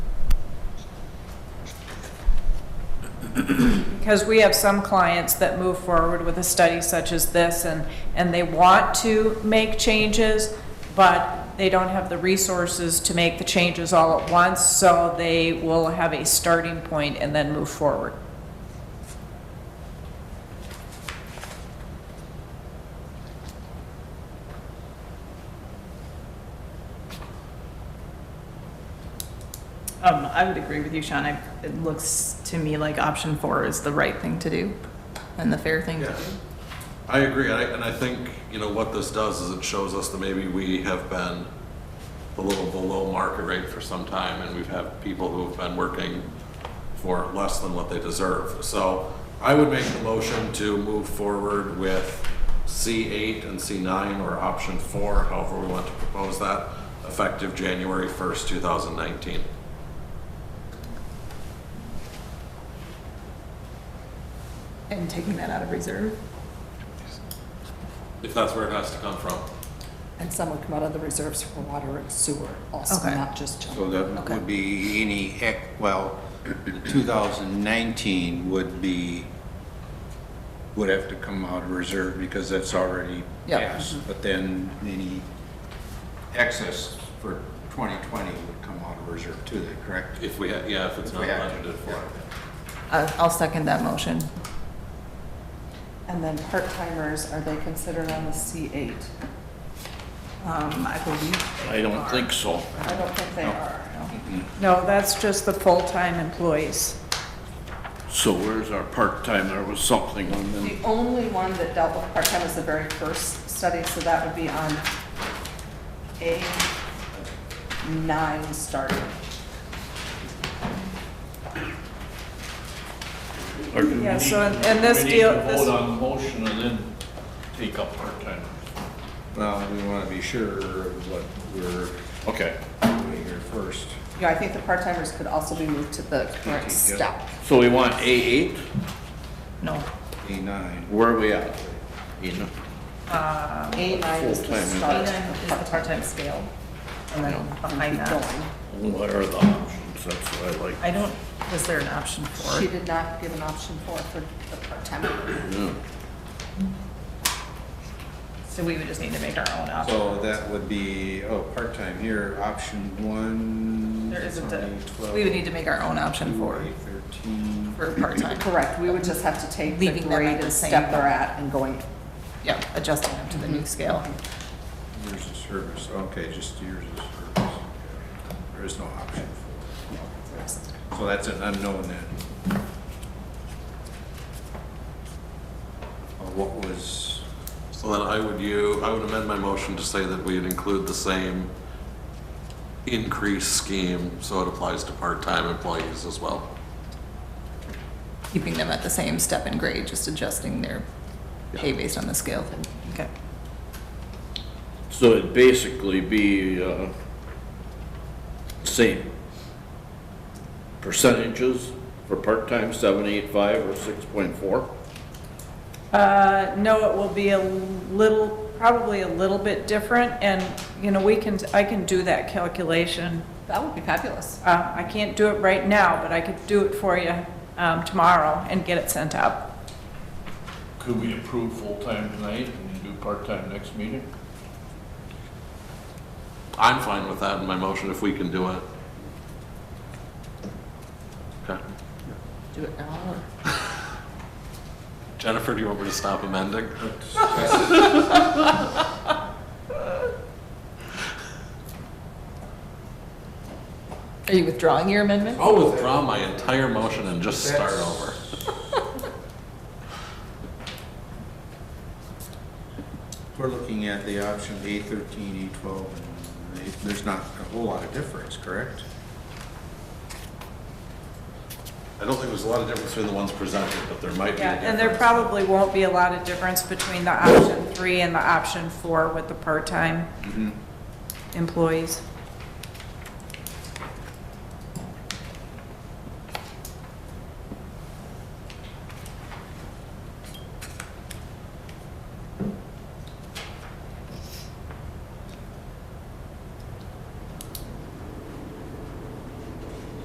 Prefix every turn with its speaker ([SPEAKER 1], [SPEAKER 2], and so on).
[SPEAKER 1] because we have some clients that move forward with a study such as this, and, and they want to make changes, but they don't have the resources to make the changes all at once, so they will have a starting point and then move forward.
[SPEAKER 2] Um, I would agree with you, Sean. I- It looks to me like option four is the right thing to do and the fair thing to
[SPEAKER 3] Yeah.
[SPEAKER 2] do.
[SPEAKER 3] I agree, and I, and I think, you know, what this does is it shows us that maybe we have been a little below market rate for some time, and we've had people who have been working for less than what they deserve. So I would make the motion to move forward with C eight and C nine, or option four, however we want to propose that, effective January first, two thousand nineteen.
[SPEAKER 2] And taking that out of reserve.
[SPEAKER 3] If that's where it has to come from.
[SPEAKER 4] And some would come out of the reserves for water and sewer also,
[SPEAKER 2] Okay.
[SPEAKER 4] not just
[SPEAKER 5] So
[SPEAKER 4] general.
[SPEAKER 5] that
[SPEAKER 4] Okay.
[SPEAKER 5] would be any, ec- well, 2019 would be, would have to come out of reserve because that's already
[SPEAKER 4] Yeah. Mm-hmm.
[SPEAKER 5] passed. But then any excess for 2020 would come out of reserve too, then, correct?
[SPEAKER 3] If we, ha- yeah, if it's
[SPEAKER 5] If
[SPEAKER 3] not
[SPEAKER 5] we have to.
[SPEAKER 3] budgeted for.
[SPEAKER 2] I- I'll second that motion.
[SPEAKER 6] And then part-timers, are they considered on the C8?
[SPEAKER 2] Um, I believe.
[SPEAKER 7] I don't think so.
[SPEAKER 6] I don't think they are.
[SPEAKER 1] No, that's just the full-time employees.
[SPEAKER 7] So where's our part-time? There was something on them.
[SPEAKER 6] The only one that dealt with part-time was the very first study, so that would be on A9 starting.
[SPEAKER 7] Or do we
[SPEAKER 1] Yeah, so,
[SPEAKER 7] need-
[SPEAKER 1] and- and this
[SPEAKER 7] we need
[SPEAKER 1] deal-
[SPEAKER 7] to
[SPEAKER 1] this-
[SPEAKER 7] Vote on the motion and then take up part-time.
[SPEAKER 5] Well, we want to be sure of what we're
[SPEAKER 7] Okay,
[SPEAKER 5] doing here first.
[SPEAKER 6] Yeah, I think the part-timers could also be moved to the current step.
[SPEAKER 7] so we want A eight?
[SPEAKER 2] No.
[SPEAKER 5] A9.
[SPEAKER 7] Where are we at? You know,
[SPEAKER 6] A9 is the
[SPEAKER 7] Full-time, isn't it?
[SPEAKER 6] start.
[SPEAKER 2] Is the part-time scale. And then behind
[SPEAKER 6] Keep
[SPEAKER 2] that,
[SPEAKER 6] going.
[SPEAKER 7] What are the options? That's what I like.
[SPEAKER 2] I don't, was there an option
[SPEAKER 6] She
[SPEAKER 2] four?
[SPEAKER 6] did not give an option for, for the part-time.
[SPEAKER 2] So we would just need to make our own option.
[SPEAKER 5] So that would be, oh, part-time here, option one.
[SPEAKER 2] There isn't a,
[SPEAKER 5] 12,
[SPEAKER 2] we would need to make our own option four
[SPEAKER 5] 13.
[SPEAKER 2] for part-time.
[SPEAKER 6] Correct, we would just have to take the
[SPEAKER 2] Leaving them at
[SPEAKER 6] grade
[SPEAKER 2] the
[SPEAKER 6] and
[SPEAKER 2] same.
[SPEAKER 6] step they're at and going
[SPEAKER 2] Yeah, adjusting them to the new scale.
[SPEAKER 5] Years of service, okay, just years of service. There is no option for. So that's an unknown then. Uh, What was,
[SPEAKER 3] So then I would you, I would amend my motion to say that we'd include the same increase scheme, so it applies to part-time employees as well.
[SPEAKER 2] keeping them at the same step and grade, just adjusting their pay based on the scale. Okay.
[SPEAKER 7] So it'd basically be, uh, same percentages for part-time, seven, eight, five, or six point four?
[SPEAKER 1] Uh, no, it will be a little, probably a little bit different, and, you know, we can, I can do that calculation.
[SPEAKER 6] That would be fabulous.
[SPEAKER 1] Uh, I can't do it right now, but I could do it for you, um, tomorrow and get it sent out.
[SPEAKER 7] Could we approve full-time tonight and do part-time next meeting?
[SPEAKER 3] I'm fine with that in my motion if we can do it. Okay.
[SPEAKER 2] Do it now or?
[SPEAKER 3] Jennifer, do you want me to stop amending?
[SPEAKER 2] Are you withdrawing your amendment?
[SPEAKER 3] I'll withdraw my entire motion and just start over.
[SPEAKER 5] we're looking at the option A thirteen, A twelve, and A- there's not a whole lot of difference, correct?
[SPEAKER 3] I don't think there's a lot of difference between the ones presented, but there might be a
[SPEAKER 1] Yeah, and
[SPEAKER 3] difference.
[SPEAKER 1] there probably won't be a lot of difference
[SPEAKER 3] Mm-hmm.
[SPEAKER 1] between the option three and the option four with the part-time employees.